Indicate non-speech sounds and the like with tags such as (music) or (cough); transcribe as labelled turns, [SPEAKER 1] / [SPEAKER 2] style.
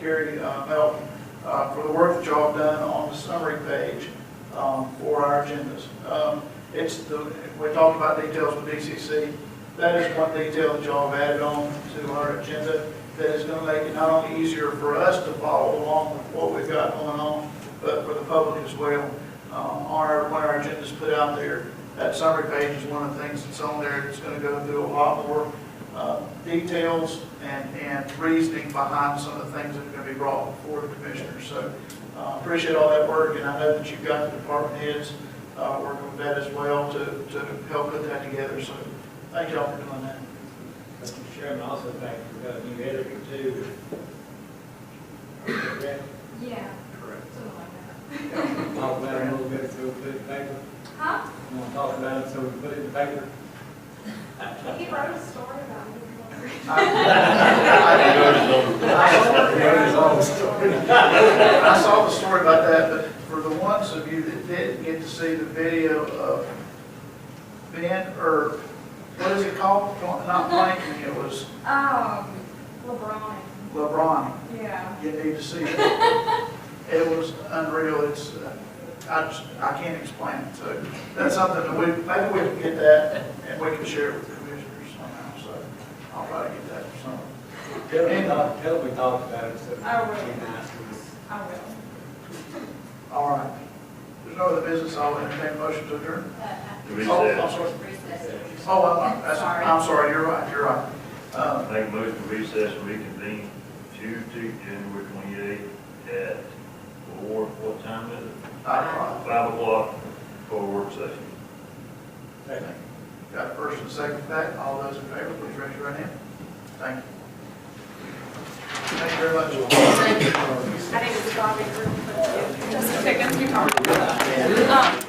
[SPEAKER 1] Gary uh, Melton, uh, for the work that y'all have done on the summary page um, for our agendas. Um, It's the, we talked about details with DCC. That is one detail that y'all have added on to our agenda that is going to make it not only easier for us to follow along with what we've got going on, but for the public as well. Um, Our, when our agenda's put out there, that summary page is one of the things that's on there that's going to go through a lot more uh, details and, and reasoning behind some of the things that are going to be brought before the commissioners. So uh, appreciate all that work, and I know that you've got the department heads uh, working with that as well to, to help put that together. So thank y'all for doing that.
[SPEAKER 2] Mr. Chairman, also thank you, we've got a new editor too. Correct?
[SPEAKER 3] Yeah,
[SPEAKER 1] (laughs)
[SPEAKER 2] Correct.
[SPEAKER 3] something like
[SPEAKER 2] Talk about it a little bit, so we put it in paper.
[SPEAKER 3] that. Huh?
[SPEAKER 2] You want to talk about it, so we put it in paper?
[SPEAKER 3] He wrote a story about it.
[SPEAKER 1] I- I- I saw the story about that, but for the ones of you that didn't get to see the video of Ben, or what is it called? Not Planking, it was
[SPEAKER 3] Um, LeBron,
[SPEAKER 1] LeBron.
[SPEAKER 3] yeah.
[SPEAKER 1] You need to see it. It was unreal, it's, uh, I, just- I can't explain it, so that's something that we, maybe we can get that and we can share it with the commissioners somehow, so I'll try to get that for some.
[SPEAKER 2] Tell me, talk- uh, tell me, talk about it, so.
[SPEAKER 3] I will.
[SPEAKER 2] Be nice to us.
[SPEAKER 3] I will.
[SPEAKER 1] All right. There's no other business, I'll entertain a motion to adjourn. Oh, I'm
[SPEAKER 4] Recess.
[SPEAKER 1] sorry.
[SPEAKER 3] Recess.
[SPEAKER 1] Oh, I'm, that's,
[SPEAKER 3] Sorry.
[SPEAKER 1] I'm sorry, you're right, you're right. Uh,
[SPEAKER 4] Make a motion to recess and reconvene Tuesday, January twenty-eighth at four, what time is it?
[SPEAKER 1] I,
[SPEAKER 4] Five o'clock for work session.
[SPEAKER 2] Thank you.
[SPEAKER 1] got a first and second for that, all those in favor, please raise your right hand. Thank you. Thank you very much.
[SPEAKER 5] I think it's Bobby. Just a second, keep talking. Um,